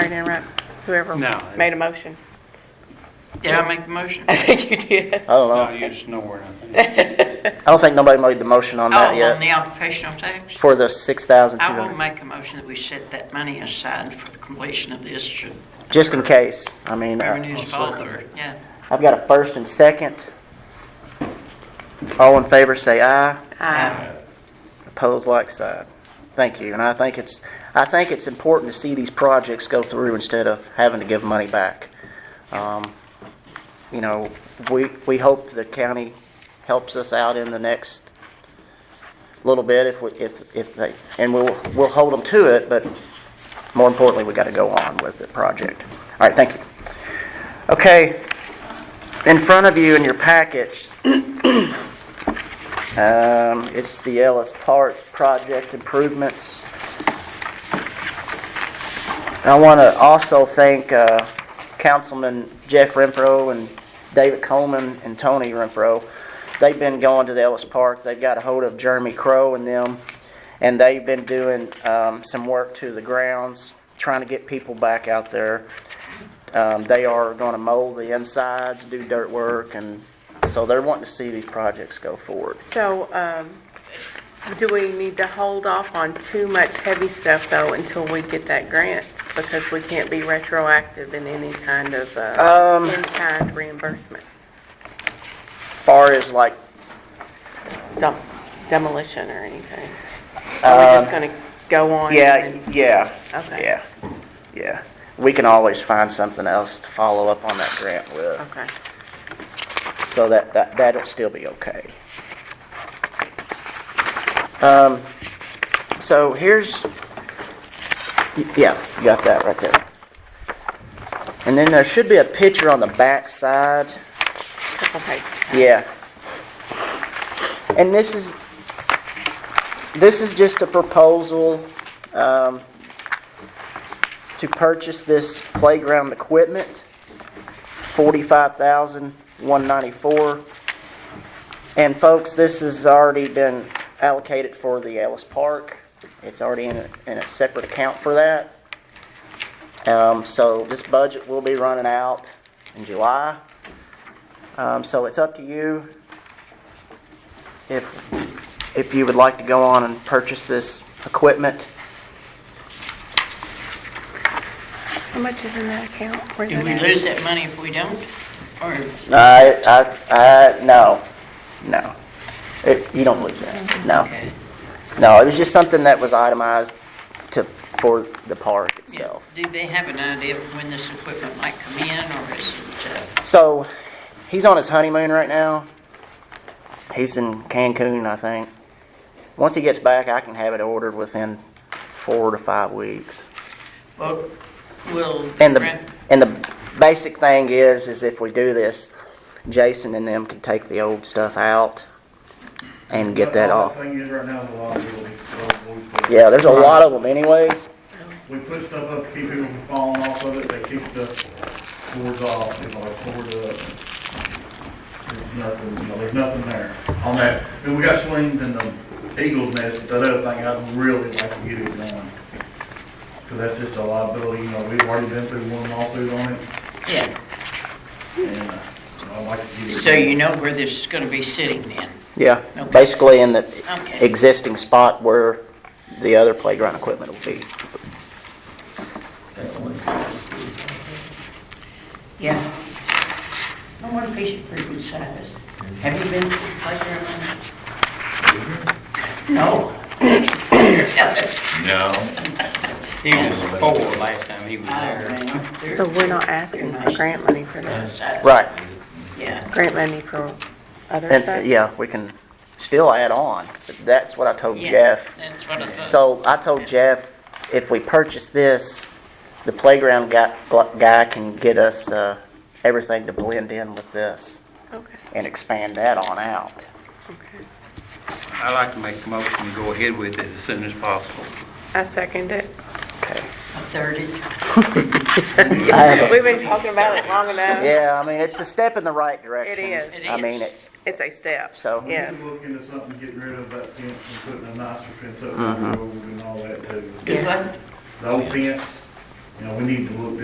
didn't interrupt whoever No. made a motion. Did I make the motion? I think you did. I don't No, know. you just snore, I think. I don't think nobody made the motion on Oh, that on yet the occupational tax? for the six thousand two I will hundred, make a motion that we set that money aside for the completion of this should just in case. I mean, uh, revenues bother, yeah. I've got a first and second. All in favor, say aye. Aye. Opposed, like sign. Thank you. And I think it's, I think it's important to see these projects go through instead of having to give money back. Um, You know, we, we hope the county helps us out in the next little bit if, we if, if they, and we'll, we'll hold them to it, but more importantly, we gotta go on with the project. All right, thank you. Okay, in front of you in your package, um, it's the Ellis Park project improvements. I want to also thank, uh, Councilman Jeff Renfro and David Coleman and Tony Renfro. They've been going to the Ellis Park. They've got a hold of Jeremy Crow and them, and they've been doing, um, some work to the grounds, trying to get people back out there. Um, they are gonna mold the insides, do dirt work, and so they're wanting to see these projects go forward. So, um, do we need to hold off on too much heavy stuff though until we get that grant? Because we can't be retroactive in any kind of, Um. uh, in-kind reimbursement, far as like, Dem- demolition or anything. Are we just gonna go on? Um, yeah, and- yeah, Okay. yeah, yeah. We can always find something else to follow up on that grant with, Okay. so that, that, that'll still be okay. Um, so here's, yeah, you got that right there. And then there should be a picture on the back side. Couple pages. Yeah. And this is, this is just a proposal um, to purchase this playground equipment, forty-five thousand, one ninety-four. And folks, this has already been allocated for the Ellis Park. It's already in a, in a separate account for that. Um, So this budget will be running out in July. Um, so it's up to you if, if you would like to go on and purchase this equipment. How much is in that account? Where Do that we at? lose that money if we don't? Or, I, I, I, no, no. It, you don't lose that, no. Mm-hmm. okay. No, it was just something that was itemized to, for the park Yeah. itself. Do they have an idea of when this equipment might come in or is it, uh, So, he's on his honeymoon right now. He's in Cancun, I think. Once he gets back, I can have it ordered within four to five weeks. well, will. And the, grant- and the basic thing is, is if we do this, Jason and them can take the old stuff out and get that All off. Thing is right now, is a lot of people, those blue stuff. Yeah, there's a lot of them anyways. We put stuff up to keep people from falling off of it, they keep the boards off, you know, like board up. There's nothing, you know, there's nothing there on that. And we got swings and the eagles nest, but that other thing, I'd really like to get it done. Cause that's just a liability, you know, we've already been through one lawsuit on it, Yeah, and uh, I'd like to get it. so you know where this is gonna be sitting then? Yeah, Okay. basically in the Okay. existing spot where the other playground equipment will be. Yeah. I want a piece of fruit and size. Have you been to the playground? No. No. He was four last time he was there. So we're not asking for grant money for that, Right, Yeah. grant money for other and, uh, stuff? yeah, we can still add on, but that's what I told Yeah, Jeff. That's what I thought. So I told Jeff, if we purchase this, the playground guy, guy can get us, uh, everything to blend in with this Okay, and expand that on out. okay. I like to make a motion to go ahead with it as soon as possible. I second it. Okay. A thirty. We've been talking about it long enough. Yeah, I mean, it's a step in the right direction. is. Uh-huh. It I is. mean, it, It's a step. So- We Yeah. could look into something, getting rid of that fence Mm-hmm. and putting a nicer fence up, and all that too. Do what? The old fence, you know, we need to look